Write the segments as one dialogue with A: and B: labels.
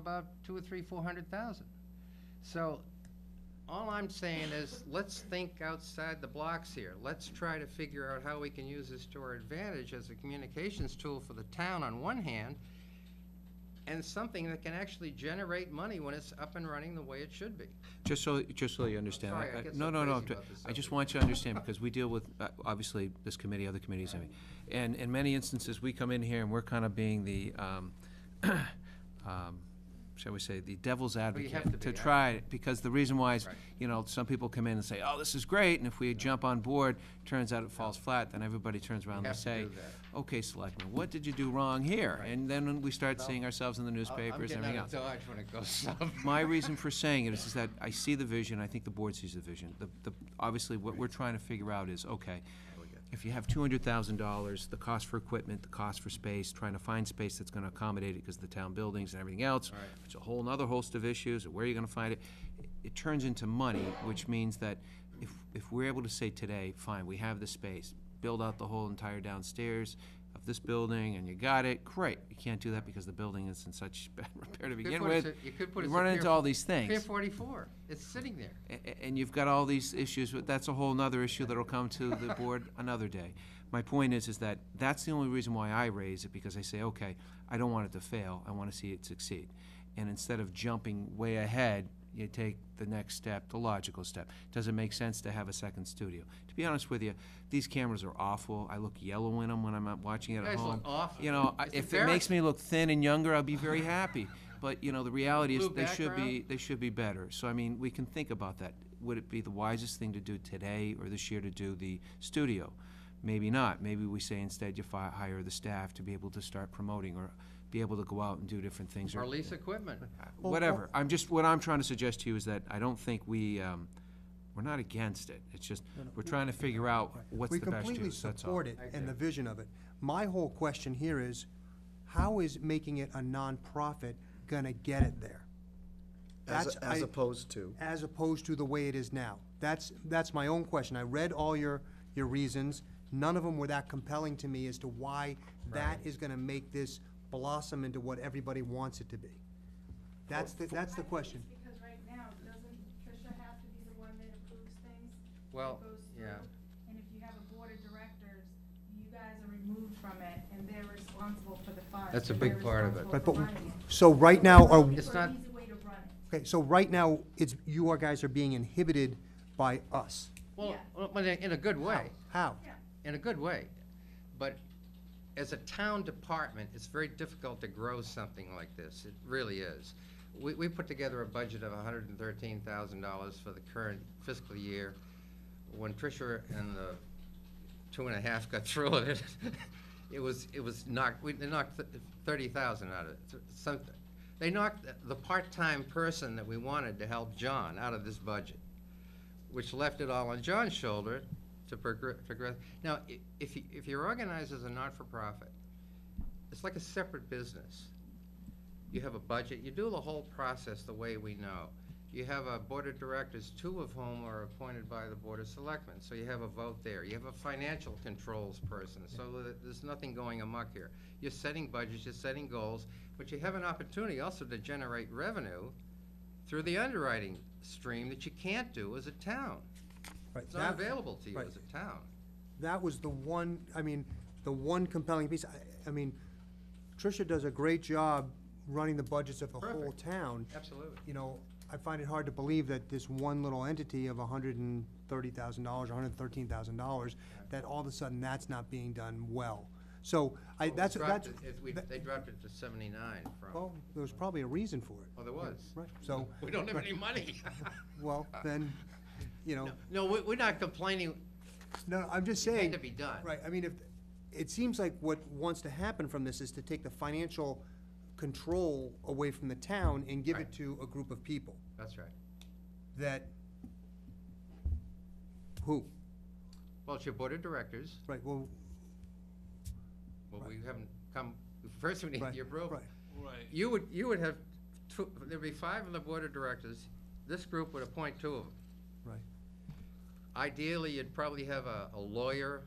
A: about two or three, four hundred thousand. So, all I'm saying is, let's think outside the blocks here. Let's try to figure out how we can use this to our advantage as a communications tool for the town on one hand, and something that can actually generate money when it's up and running the way it should be.
B: Just so, just so you understand.
A: sorry, I
B: I-
A: get
B: No,
A: so
B: no,
A: crazy
B: no. I'm
A: about this
B: t- I just
A: subject.
B: want you to understand, because we deal with, uh, obviously, this committee, other committees, I mean. And in many instances, we come in here and we're kind of being the, um, um, shall we say, the devil's advocate.
A: have to be, yeah.
B: try, it, because the reason why is,
A: Right.
B: you know, some people come in and say, oh, this is great, and if we jump on board, turns out it falls flat, then everybody turns around and
A: have to
B: say,
A: do that.
B: okay, selectmen, what did you do wrong here? And then we start seeing ourselves in the newspapers and everything else.
A: I'm getting out of Dodge when it goes south.
B: My reason for saying it is, is that I see the vision, I think the board sees the vision. The, the, obviously, what we're trying to figure out is, okay, if you have two hundred thousand dollars, the cost for equipment, the cost for space, trying to find space that's gonna accommodate it, because the town buildings and everything else,
A: Right.
B: it's a whole nother host of issues, of where you're gonna find it. It turns into money, which means that if, if we're able to say today, fine, we have the space, build out the whole entire downstairs of this building, and you got it, great. You can't do that because the building is in such bad repair to
A: You could
B: begin
A: put us
B: with.
A: at- You could put
B: You
A: us at
B: run
A: Pier
B: into
A: fo-
B: all these
A: Pier
B: things,
A: forty-four, it's sitting there.
B: a- a- and you've got all these issues, but that's a whole nother issue that'll come to the board another day. My point is, is that that's the only reason why I raise it, because I say, okay, I don't want it to fail, I wanna see it succeed. And instead of jumping way ahead, you take the next step, the logical step. Does it make sense to have a second studio? To be honest with you, these cameras are awful, I look yellow in them when I'm out watching it
A: You
B: at
A: guys
B: home.
A: look awful.
B: You know, I-
A: It's
B: if it makes
A: embarrassing.
B: me look thin and younger, I'll be very happy. But, you know, the reality is,
A: Blue
B: they should be,
A: background.
B: they should be better. So, I mean, we can think about that. Would it be the wisest thing to do today or this year to do the studio? Maybe not. Maybe we say instead you fi- hire the staff to be able to start promoting or be able to go out and do different things or
A: Or lease equipment.
B: whatever. I'm just, what I'm trying to suggest to you is that I don't think we, um, we're not against it. It's just, we're trying to figure out what's the best
C: We completely
B: use, that's all.
C: support it and the vision of it. My whole question here is, how is making it a nonprofit gonna get it there?
D: As,
C: That's-
D: as
C: I-
D: opposed to,
C: As opposed to the way it is now? That's, that's my own question. I read all your, your reasons. None of them were that compelling to me as to why that is gonna make this blossom into what everybody wants it to be. That's the, that's the question.
E: It's because right now, doesn't Tricia have to be the one that approves things? that
A: Well,
E: goes through?
A: yeah.
E: And if you have a board of directors, you guys are removed from it and they're responsible for the funds.
A: That's a
E: and
A: big
E: they're
A: part of it.
C: But,
E: responsible
C: but,
E: for running it.
C: so right now, are,
E: Looking
A: It's
E: for an
A: not-
E: easy way to run it.
C: okay, so right now, it's, you are guys are being inhibited by us.
A: Well,
E: Yeah.
A: well, but in a good way.
C: How?
A: in a good way. But as a town department, it's very difficult to grow something like this. It really is. We, we put together a budget of hundred and thirteen thousand dollars for the current fiscal year. When Tricia and the two and a half got through with it, it was, it was knocked, we, they knocked thirty thousand out of it, th- something. They knocked the- the part-time person that we wanted to help John out of this budget which left it all on John's shoulder to progress. progress. Now, i- if, you- if you're organized as a not-for-profit, it's like a separate business. You have a budget, you do the whole process the way we know. You have a board of directors, two of whom are appointed by the board of selectmen, so you have a vote there. You have a financial controls person, so that there's nothing going amok here. You're setting budgets, you're setting goals, but you have an opportunity also to generate revenue through the underwriting stream that you can't do as a town.
C: Right,
A: It's not
C: that-
A: available to you
C: right.
A: as a town.
C: that was the one, I mean, the one compelling piece. I, I mean, Tricia does a great job running the budgets of the whole
A: Perfect.
C: town.
A: Absolutely.
C: You know, I find it hard to believe that this one little entity of hundred and thirty thousand dollars, hundred and thirteen thousand dollars, that all of a sudden that's not being done well. So I,
A: Well, we
C: that's,
A: dropped
C: that's,
A: it- it- we-
C: that-
A: They dropped it to seventy-nine from,
C: well, there was probably a reason for it,
A: oh, there was.
C: right? So,
A: We don't have any money.
C: well,
A: Uh,
C: then, you know,
A: No, we, we're not complaining,
C: no, I'm just
A: it
C: saying.
A: had to be done.
C: Right, I mean, if, it seems like what wants to happen from this is to take the financial control away from the town and give
A: Right.
C: it to a group of people
A: That's right.
C: that, who,
A: Well, it's your board of directors,
C: right, well,
A: well, we haven't come, first we need
C: right,
A: your approval.
C: right.
A: You would, you would have, two- there'd be five on the board of directors, this group would appoint two of them.
C: Right.
A: Ideally, you'd probably have a a lawyer,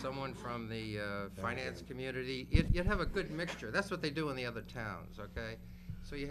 A: someone from the uh, finance community. You'd you'd have a good mixture. That's what they do in the other towns, okay? So you have